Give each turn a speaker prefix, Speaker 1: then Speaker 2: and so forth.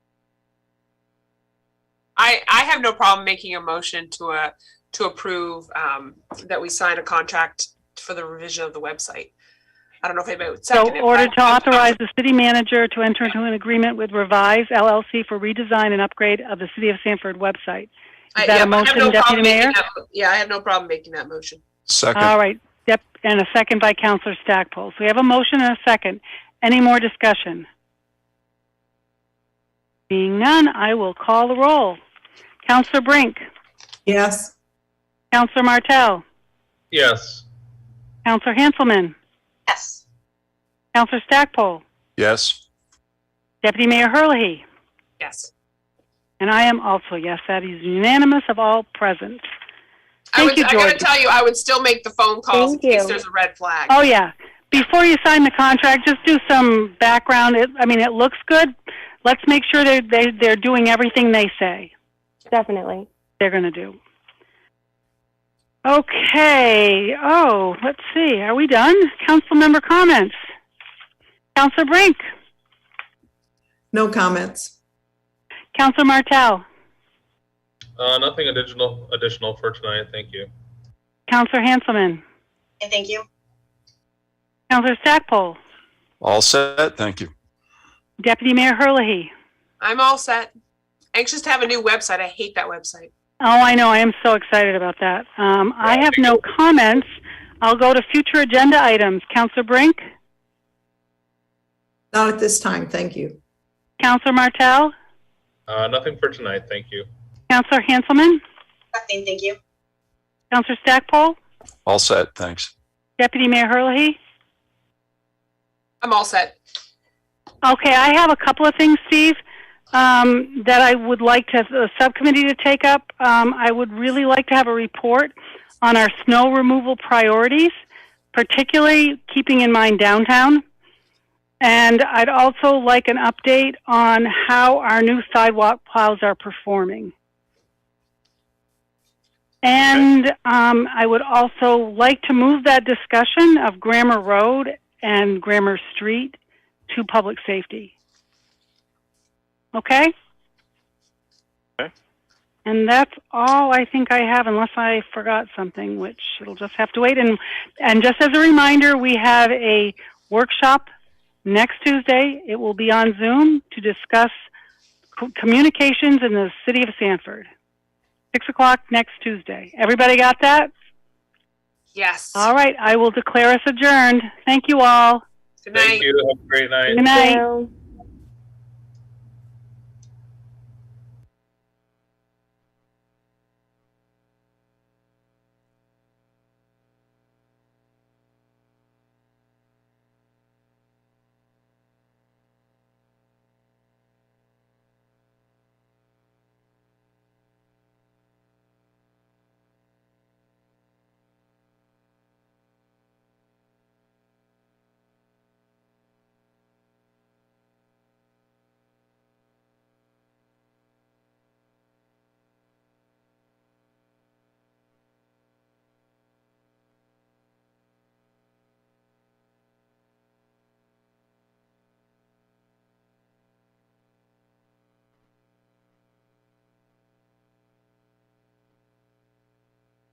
Speaker 1: I have no problem making a motion to a, to approve, um, that we sign a contract for the revision of the website. I don't know if anybody would second
Speaker 2: So
Speaker 1: it. but
Speaker 2: order
Speaker 1: I-
Speaker 2: to authorize the city manager to enter into an agreement with Revise LLC for redesign and upgrade of the City of Sanford website.
Speaker 1: I-
Speaker 2: Is that a
Speaker 1: yeah, I have
Speaker 2: motion,
Speaker 1: no
Speaker 2: Deputy
Speaker 1: problem making
Speaker 2: Mayor?
Speaker 1: that mo- Yeah, I have no problem making that motion.
Speaker 2: All
Speaker 3: Second,
Speaker 2: right, Yep, and a second by Counselor Stackpole. So we have a motion and a second. Any more discussion? Being none, I will call the roll. Counselor Brink,
Speaker 4: yes,
Speaker 2: Counselor Martell,
Speaker 5: yes,
Speaker 2: Counselor Hanselman,
Speaker 1: Yes.
Speaker 2: Counselor Stackpole,
Speaker 3: yes.
Speaker 2: Deputy Mayor Herlihy,
Speaker 1: Yes.
Speaker 2: and I am also yes. That is unanimous of all present.
Speaker 1: I
Speaker 2: Thank
Speaker 1: would,
Speaker 2: you,
Speaker 1: I gotta
Speaker 2: George.
Speaker 1: tell you, I would still make the phone calls in
Speaker 6: Thank
Speaker 1: case
Speaker 6: you.
Speaker 1: there's a red flag.
Speaker 2: Oh, yeah. Before you sign the contract, just do some background. It, I mean, it looks good. Let's make sure they're, they, they're doing everything they say
Speaker 6: definitely.
Speaker 2: they're going to do. Okay. Oh, let's see. Are we done? Council member comments. Councilor Brink,
Speaker 4: no comments.
Speaker 2: Councilor Martell,
Speaker 5: uh, nothing additional, additional for tonight, thank you.
Speaker 2: Councilor Hanselman,
Speaker 7: Thank you.
Speaker 2: Councilor Stackpole,
Speaker 3: All set, thank you.
Speaker 2: Deputy Mayor Herlihy.
Speaker 1: I'm all set. Anxious to have a new website. I hate that website.
Speaker 2: Oh, I know. I am so excited about that. Um, I have no comments. I'll go to future agenda items. Councilor Brink,
Speaker 4: Not at this time, thank you.
Speaker 2: Councilor Martell,
Speaker 5: Uh, nothing for tonight, thank you.
Speaker 2: Councilor Hanselman,
Speaker 7: Nothing, thank you.
Speaker 2: Councilor Stackpole,
Speaker 3: All set, thanks.
Speaker 2: Deputy Mayor Herlihy.
Speaker 1: I'm all set.
Speaker 2: Okay, I have a couple of things, Steve, um, that I would like to, the subcommittee to take up. Um, I would really like to have a report on our snow removal priorities, particularly keeping in mind downtown. And I'd also like an update on how our new sidewalk plows are performing. And um, I would also like to move that discussion of Grammar Road and Grammar Street to public safety. Okay?
Speaker 3: Okay.
Speaker 2: And that's all I think I have unless I forgot something, which it'll just have to wait. And, and just as a reminder, we have a workshop next Tuesday. It will be on Zoom to discuss co- communications in the city of Sanford. Six o'clock next Tuesday. Everybody got that?
Speaker 1: Yes.
Speaker 2: All right, I will declare us adjourned. Thank you all.
Speaker 1: Good night.
Speaker 5: Thank you, have a great night.
Speaker 2: Good night.
Speaker 6: So-